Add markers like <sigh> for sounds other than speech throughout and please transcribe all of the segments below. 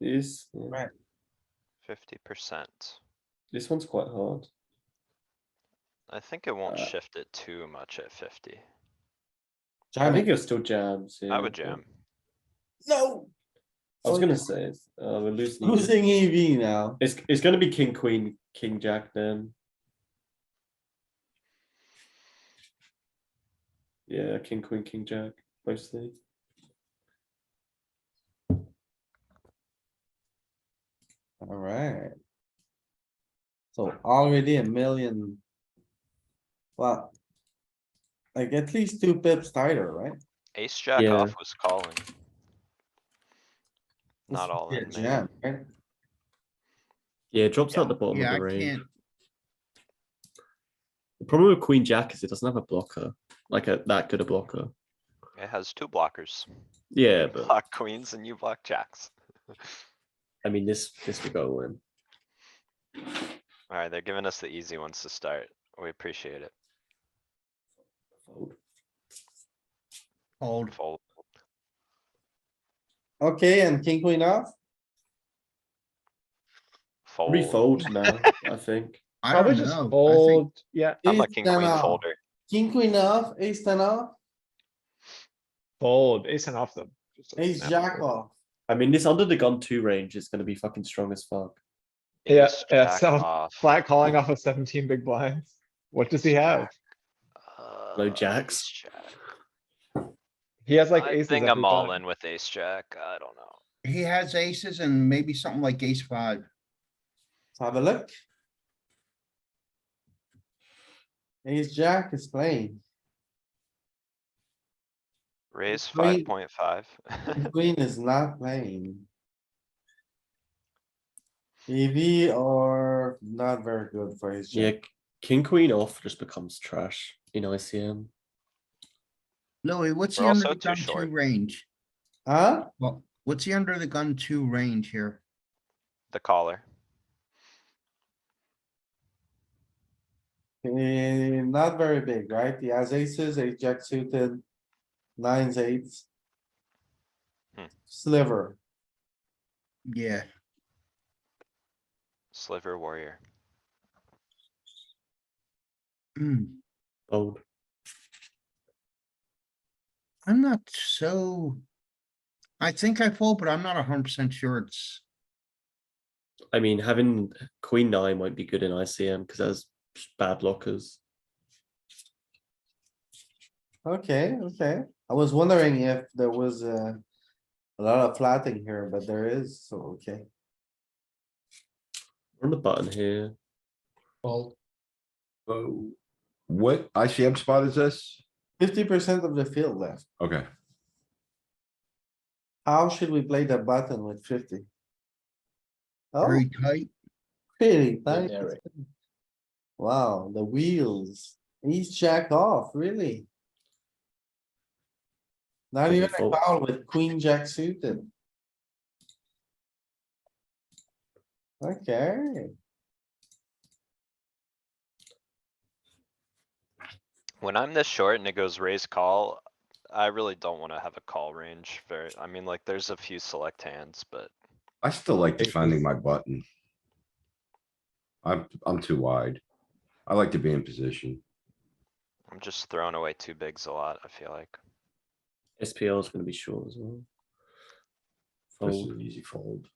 This, yeah. Right. fifty percent. this one's quite hard. I think it won't Uh, shift it too much at fifty. I Jam think it. it still jams. yeah, I would but- jam. No. I was So gonna say, it's- uh, we're losing. Losing EV now. It's, it's gonna be king, queen, king, jack then. Yeah, king, queen, king, jack, mostly. Alright. So already a million. Well. Like at least two pips tighter, right? Ace jack Yeah. off was calling. This Not would all be a in, maybe. jam, right? Yeah, it drops Yeah. out the bottom Yeah, of I the range. can't, The problem with Queen Jack is it doesn't have a blocker, like a that good a blocker. It has two blockers. Yeah, <laughs> You but Block queens and you block jacks. I mean this this we go win. Alright, they're giving us the easy ones to start. We appreciate it. Fold. fold, Fold. Okay, and king queen off? Fold. Refold now, I think. I Probably don't just know. I think- fold, yeah, I'm a Ace king ten queen off, folder. King queen off, ace ten off, fold, ace and off them. Just doesn't ace matter. jack off. I mean this under the gun two range is gonna be fucking strong as fuck. Yeah, Ace yeah, jack so off. Flat calling off of seventeen big blinds. What does he have? Uh, Low ace jacks. jack. He has like I aces. think every I'm all time. in with ace jack. I don't know. He has aces and maybe something like ace five. Let's have a look. Ace jack is playing, Raise Queen- five point five. <laughs> King queen is not playing. EV are not very good for ace Yeah, jack. King Queen off just becomes trash in ICM. Louis, what's the We're under also the too gun two short. range? Huh? Well, what's the under the gun two range here? The caller. Eh, not very big, right? He has aces, ace jack suited, nines, eights. Hmm. Sliver, Yeah, Sliver warrior. Mm, Fold. I'm not so. I think I fold, but I'm not hundred percent sure it's, I mean having Queen Nine won't be good in ICM because that's bad blockers. okay, okay. I was wondering if there was a. A lot of flatting here, but there is, so okay. We're on the button here. Oh, what ICM spot is this? Fifty percent of the field left. Okay, How should we play the button with fifty? Oh, very tight. pretty tight. Wow, the wheels. He's jack off, really? Not Does it even a fold? call with queen jack suited. Okay, When I'm this short and it goes raise call, I really don't wanna have a call range very, I mean, like, there's a few select hands, but I still like defending my button. I'm, I'm too wide. I like to be in position. I'm just throwing away two bigs a lot, I feel like. SPL is gonna be short as well. This is Fold. an easy fold.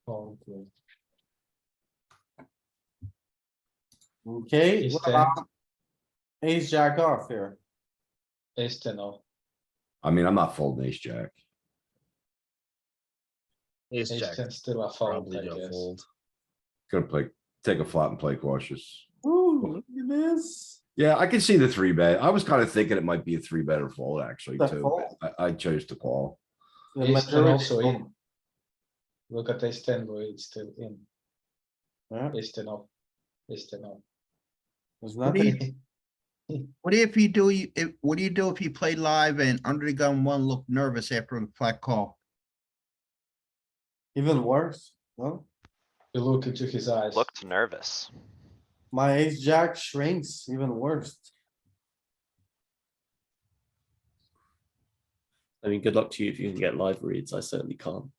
okay, what about ace jack off here? I mean, I'm not folding ace jack. Ace jack. Still a fold, Probably I gonna guess. fold. Gonna play, take a flop and play cautious. Ooh, look at this. Yeah, I can see the three bet. I was kind of thinking it might be a three better fold actually The too. fold. but I, I chose to call. The Ace ten majority also fold. in. Look at ace ten, boy, it's still in. Yeah, Ace ten off. Ace ten off. there's What do nothing. you- what if you do, you- if- what do you do if you play live and under the gun one looked nervous after the flat call? Even worse, no? You look into his eyes. Looked nervous. My ace jack shrinks even worse. I mean, good luck to you if you can get live reads. I certainly can't.